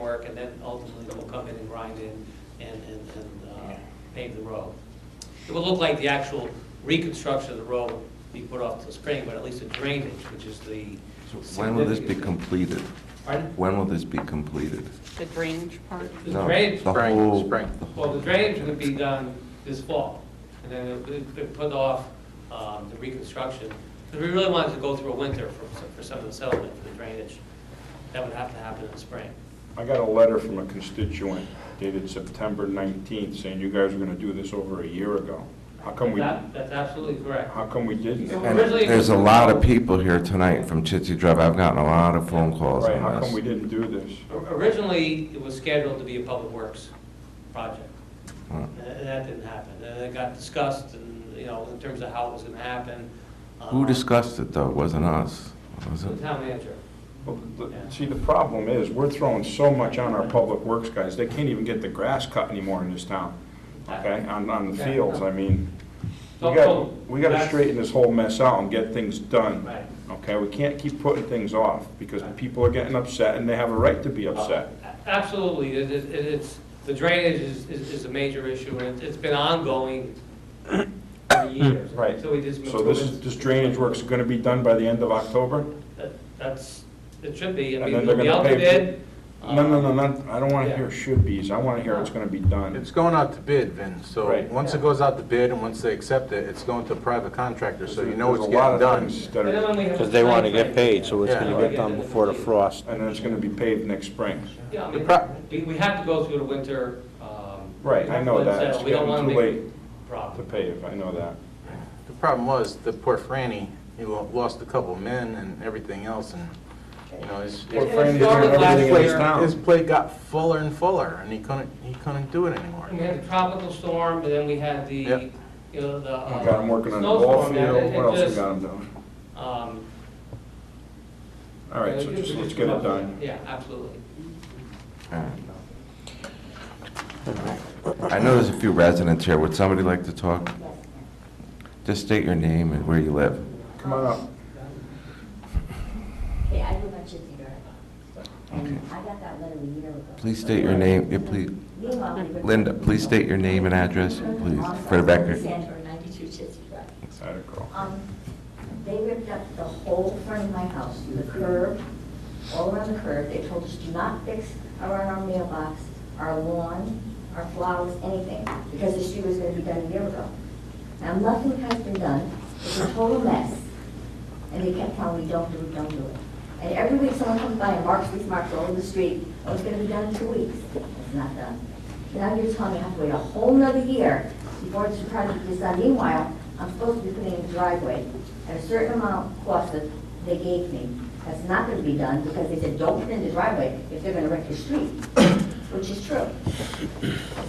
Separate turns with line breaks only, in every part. work, and then ultimately they'll come in and grind in and, and, and uh, pave the road. It will look like the actual reconstruction of the road will be put off till spring, but at least the drainage, which is the.
When will this be
significant-
completed?
Pardon?
When will this be completed?
The drainage part?
The
No,
drainage-
the
Spring,
whole-
spring.
the whole-
Well, the drainage would be done this fall, and then it would be put off um, the reconstruction. Because we really wanted to go through a winter for, for some of the settlement for the drainage. That would have to happen in the spring.
I got a letter from a constituent dated September 19th saying you guys were going to do this over a year ago. How come we,
That, that's absolutely correct.
how come we didn't?
So
And
Originally-
There's a lot of people here tonight from Chitsey Drive. I've gotten a lot of phone calls
Right,
on
how come we
this.
didn't do this?
O- Originally, it was scheduled to be a public works project,
Uh,
and and that didn't happen. And it got discussed, and, you know, in terms of how it was gonna happen.
Who
um,
discussed it, though? It Wasn't us, was
The
it?
town manager.
Well, the- See, the problem is, we're throwing so much on our public works guys, they can't even get the grass cut anymore in this town, okay, on, on the fields, I mean. We got, we gotta straighten this whole mess out and get things done.
Right.
Okay, we can't keep putting things off, because people are getting upset, and they have a right to be upset.
A- Uh, Absolutely, It- it- it- it's, the drainage is, is is a major issue, and it's- it's been ongoing for years.
Right.
So we just.
So this, this drainage work's gonna be done by the end of October?
That- That's, it should be, I
And
mean,
then they're
it'll be out
gonna
to
pay-
bid.
Uh,
No, no, no, not, I don't wanna
Yeah.
hear should be's, I wanna hear it's gonna be done.
It's going out to bid, Vin, so
Right.
once it goes out to bid and once they accept it, it's going to a private contractor, so you know
There's
it's
a lot
getting
of
done.
things that
And
are-
then when we have
Because
the
they want to
timeframe,
get paid, so it's
Yeah.
going to get done before the frost.
And then it's gonna be paved next spring.
Yeah, I
The
mean,
pro-
we, we have to go through the winter, um.
Right, I know that.
settle.
It's
We don't
getting
wanna
too
make
late
a
To
Problem.
pave, I know that.
The problem was, the Port Franny, he lo- lost a couple men and everything else, and, you know, his,
It-
Poor
it
Franny's doing
started last
everything in this
year.
town.
his plate got fuller and fuller, and he couldn't, he couldn't do it anymore.
And we had the tropical storm, and then we had the,
Yep.
you know, the.
I
uh,
got him working on the ball
snowstorm, and
field,
it-
what
it
else we
just,
got him doing?
Um,
All right, so just, let's get it done.
Yeah, absolutely.
I know there's a few residents here. Would somebody like to talk? Just state your name and where you live.
Come on up.
Okay, I live on Chitsey Drive. And I got that letter a year ago.
Please state your name, yeah, please.
Meanwhile, we were-
Linda, please state your name and address, please, for the record.
Sandra, 92 Chitsey Drive.
Had a girl.
Um, They ripped up the whole front of my house, the curb, all around the curb. They told us do not fix around our mailbox, our lawn, our flowers, anything, because the street was going to be done a year ago. Now, nothing has been done. It's a total mess. And they kept telling me, don't do it, don't do it. And every week someone comes by and marks these marks all over the street, oh, it's gonna be done in two weeks. It's not done. Now you're telling me I have to wait a whole nother year before this project is done. Meanwhile, I'm supposed to be putting in a driveway at a certain amount of cost that they gave me. That's not gonna be done because they said, don't put in the driveway if they're gonna wreck your street, which is true.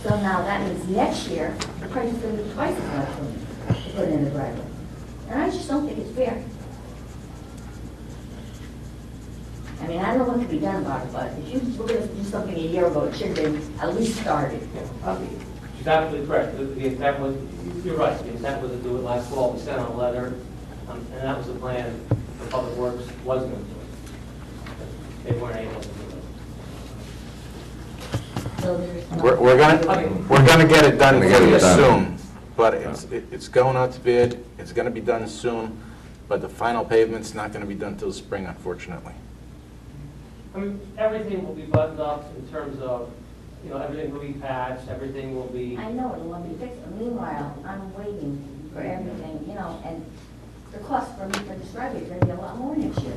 So now that means next year, the price is gonna be twice as much for me to put in the driveway. And I just don't think it's fair. I mean, I don't know what can be done about it, but if you were gonna do something a year ago, it should have been at least started.
She's absolutely correct. The- The intent was, you're right, the intent was to do it last fall. We sent out a letter, um, and that was the plan. The Public Works was going to do it. They weren't able to do it.
So there's no-
We're, we're
Okay.
gonna, we're gonna get it done
Gonna get
pretty
it done.
soon, but it's, it- it's going out to bid, it's gonna be done soon, but the final pavement's not gonna be done till spring, unfortunately.
I mean, everything will be buttoned up in terms of, you know, everything will be patched, everything will be.
I know it'll want to be fixed, but meanwhile, I'm waiting for everything, you know, and the cost for me for this driveway is gonna be a lot more next year.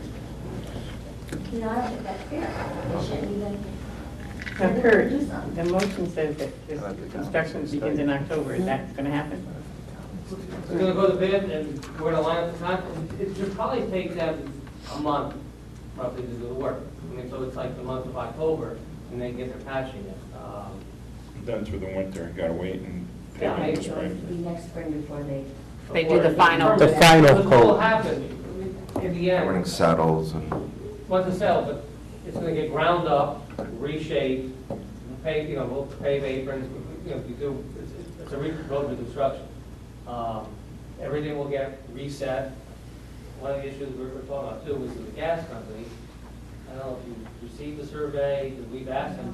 You know, I don't think that's fair. They shouldn't even,
Now, Kurt,
Do something.
the motion says that this construction begins in October, is that going to happen?
We're gonna go to bid and we're gonna line up the time. It should probably take them a month roughly to do the work. I mean, so it's like the month of October and they get their patching it. Um,
Done through the winter, gotta wait and
Yeah,
pave it this
so
spring.
it'll be next spring before they,
They do the final.
The final
Because what will
coat.
happen in the
Everything
end,
settles and...
once it's settled, but it's gonna get ground up, reshaped, paved, you know, we'll pave aprons, we- you know, we do, it's, it's a re- road reconstruction. Um, Everything will get reset. One of the issues we were talking about too was with the gas company. I don't know if you received the survey, 'cause we've asked them